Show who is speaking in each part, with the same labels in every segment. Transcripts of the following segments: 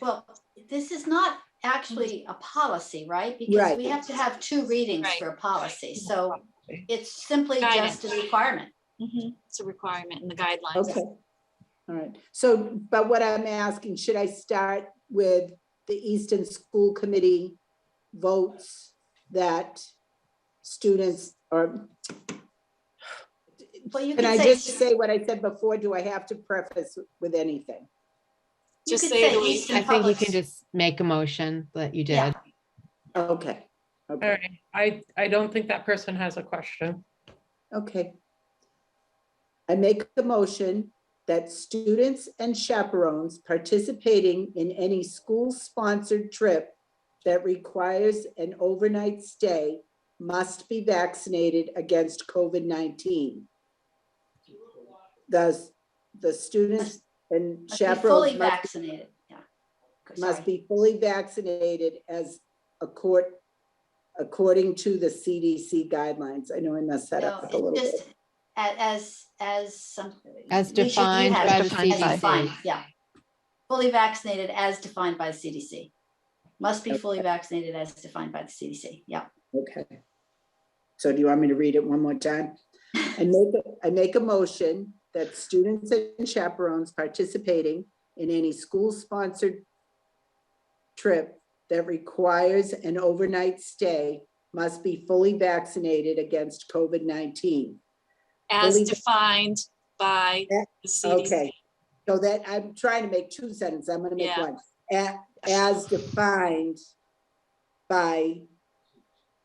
Speaker 1: Well, this is not actually a policy, right? Because
Speaker 2: Right.
Speaker 1: we have to have two readings
Speaker 3: Right.
Speaker 1: for a policy, so it's simply
Speaker 3: Guidance.
Speaker 1: just a requirement.
Speaker 3: It's a requirement in the guidelines.
Speaker 2: Okay. All right. So, but what I'm asking, should I start with the Easton School Committee votes that students or
Speaker 1: Well, you
Speaker 2: can I
Speaker 1: could
Speaker 2: just
Speaker 1: say,
Speaker 2: say what I said before? Do I have to preface with anything?
Speaker 1: you
Speaker 3: Just
Speaker 1: could
Speaker 3: say
Speaker 1: say
Speaker 3: the way-
Speaker 4: I
Speaker 1: Easton
Speaker 4: think you
Speaker 1: Public.
Speaker 4: can just make a motion that you
Speaker 1: Yeah.
Speaker 4: did.
Speaker 2: Okay.
Speaker 5: All
Speaker 2: Okay.
Speaker 5: right, I, I don't think that person has a question.
Speaker 2: Okay. I make a motion that students and chaperones participating in any school-sponsored trip that requires an overnight stay must be vaccinated against COVID-19. Thus, the students and
Speaker 1: Must be fully
Speaker 2: chaperones must-
Speaker 1: vaccinated, yeah. Okay,
Speaker 2: must
Speaker 1: sorry.
Speaker 2: be fully vaccinated as a court, according to the CDC guidelines. I know I messed that
Speaker 1: No,
Speaker 2: up a little
Speaker 1: it's
Speaker 2: bit.
Speaker 1: just a- as, as some.
Speaker 4: As
Speaker 1: we should- you
Speaker 4: defined
Speaker 1: had
Speaker 4: by
Speaker 1: it
Speaker 4: the
Speaker 1: defined,
Speaker 4: CDC.
Speaker 1: defined, Yeah. Fully vaccinated as defined by the CDC. Must be fully vaccinated as defined by the CDC, yeah.
Speaker 2: Okay. So do you want me to read it one more time? I make, a- I make a motion that students and chaperones participating in any school-sponsored trip that requires an overnight stay must be fully vaccinated against COVID-19.
Speaker 3: As
Speaker 2: Believe-
Speaker 3: defined by the CDC.
Speaker 2: Okay. So that, I'm trying to make two sentences, I'm gonna make
Speaker 3: Yeah.
Speaker 2: one. A- As defined by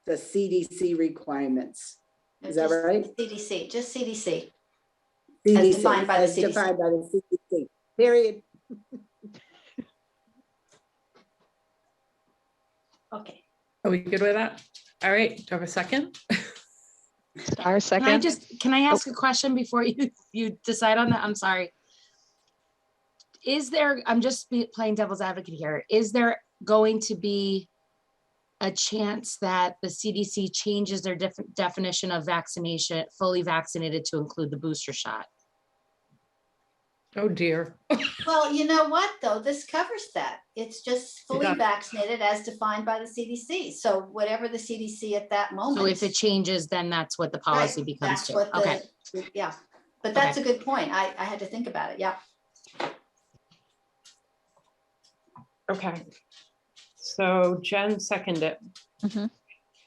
Speaker 2: the CDC requirements. Is that
Speaker 1: Just
Speaker 2: right?
Speaker 1: CDC, just CDC.
Speaker 2: CDC,
Speaker 1: defined by the
Speaker 2: as
Speaker 1: CDC.
Speaker 2: defined by the CDC, period.
Speaker 1: Okay.
Speaker 5: Are we good with that? All right, do you have a second?
Speaker 6: Our
Speaker 7: Can I
Speaker 6: second.
Speaker 7: just, can I ask a question before you, you decide on that? I'm sorry. Is there, I'm just be- playing devil's advocate here. Is there going to be a chance that the CDC changes their def- definition of vaccination, fully vaccinated to include the booster shot?
Speaker 5: Oh dear.
Speaker 1: Well, you know what, though? This covers that. It's just fully
Speaker 5: Yeah.
Speaker 1: vaccinated as defined by the CDC. So whatever the CDC at that moment.
Speaker 7: So if it changes, then that's what the
Speaker 1: Right,
Speaker 7: policy becomes
Speaker 1: that's what
Speaker 7: to.
Speaker 1: the-
Speaker 7: Okay,
Speaker 1: Yeah, but that's a good point. I, I had to think about it. Yeah.
Speaker 5: Okay. So Jen seconded it. Mm-hmm.
Speaker 6: Mhm.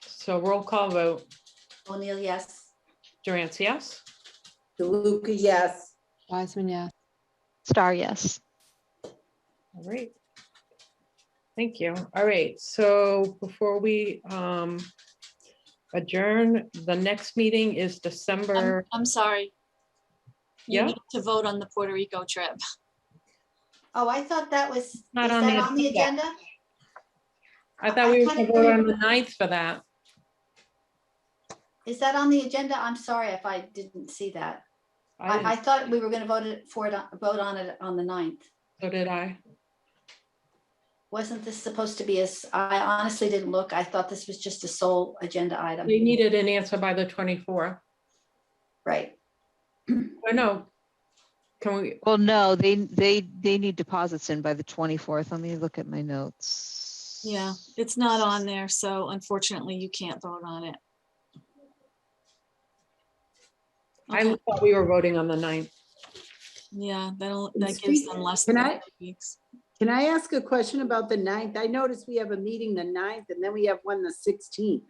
Speaker 5: So roll call vote,
Speaker 1: O'Neill, yes.
Speaker 5: Durant, yes?
Speaker 2: DeLuca, yes.
Speaker 4: Wiseman, yes.
Speaker 6: Star, yes.
Speaker 5: All right. Thank you. All right, so before we um adjourn, the next meeting is
Speaker 3: I'm,
Speaker 5: December,
Speaker 3: I'm sorry. You
Speaker 5: Yeah.
Speaker 3: need to vote on the Puerto Rico trip.
Speaker 1: Oh, I thought that was, is
Speaker 5: Not on the
Speaker 1: that on the
Speaker 5: agenda.
Speaker 1: agenda?
Speaker 5: I thought we
Speaker 1: I
Speaker 5: were
Speaker 1: kinda
Speaker 5: gonna go on
Speaker 1: agree.
Speaker 5: the ninth for that.
Speaker 1: Is that on the agenda? I'm sorry if I didn't see that. I, I
Speaker 5: I,
Speaker 1: thought we were going to vote it for it, on- vote on it on the 9th.
Speaker 5: so did I.
Speaker 1: Wasn't this supposed to be as, I honestly didn't look. I thought this was just a sole agenda item.
Speaker 5: We needed an answer by the twenty-fourth.
Speaker 1: Right.
Speaker 5: I know. Can we,
Speaker 6: Well, no, they, they, they need deposits in by the 24th. Let me look at my notes.
Speaker 3: Yeah, it's not on there, so unfortunately you can't vote on it.
Speaker 5: I
Speaker 3: Okay,
Speaker 5: thought we were voting on the ninth.
Speaker 3: Yeah, that'll, that gives them less
Speaker 2: Can
Speaker 3: than
Speaker 2: I-
Speaker 3: three weeks.
Speaker 2: Can I ask a question about the ninth? I noticed we have a meeting the ninth and then we have one the sixteenth.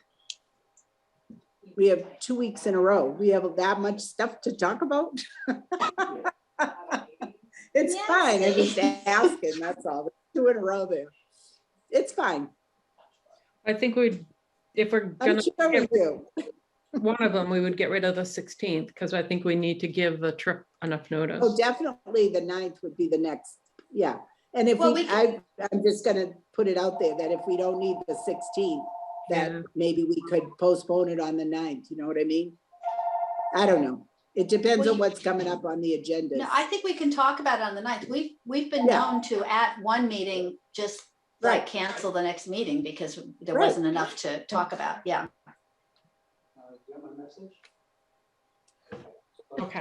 Speaker 2: We have two weeks in a row. We have that much stuff to talk about? It's
Speaker 1: Yes.
Speaker 2: fine. I'm just asking, that's all. Two in a row there. It's fine.
Speaker 5: I think we'd, if we're
Speaker 2: I'm
Speaker 5: gonna,
Speaker 2: sure we do.
Speaker 5: one of them, we would get rid of the sixteenth, because I think we need to give the trip enough
Speaker 2: Oh,
Speaker 5: notice.
Speaker 2: definitely the ninth would be the next, yeah. And if
Speaker 1: Well,
Speaker 2: we,
Speaker 1: we
Speaker 2: I, I'm just gonna put it out there that if we don't need the sixteenth,
Speaker 5: Yeah.
Speaker 2: that maybe we could postpone it on the ninth, you know what I mean? I don't know. It depends
Speaker 1: Well,
Speaker 2: on
Speaker 1: you-
Speaker 2: what's coming up on the agenda.
Speaker 1: No, I think we can talk about it on the 9th. We've, we've been
Speaker 2: Yeah.
Speaker 1: known to at one meeting, just like
Speaker 2: Right.
Speaker 1: cancel the next meeting because there
Speaker 2: Right.
Speaker 1: wasn't enough to talk about. Yeah.
Speaker 5: Okay.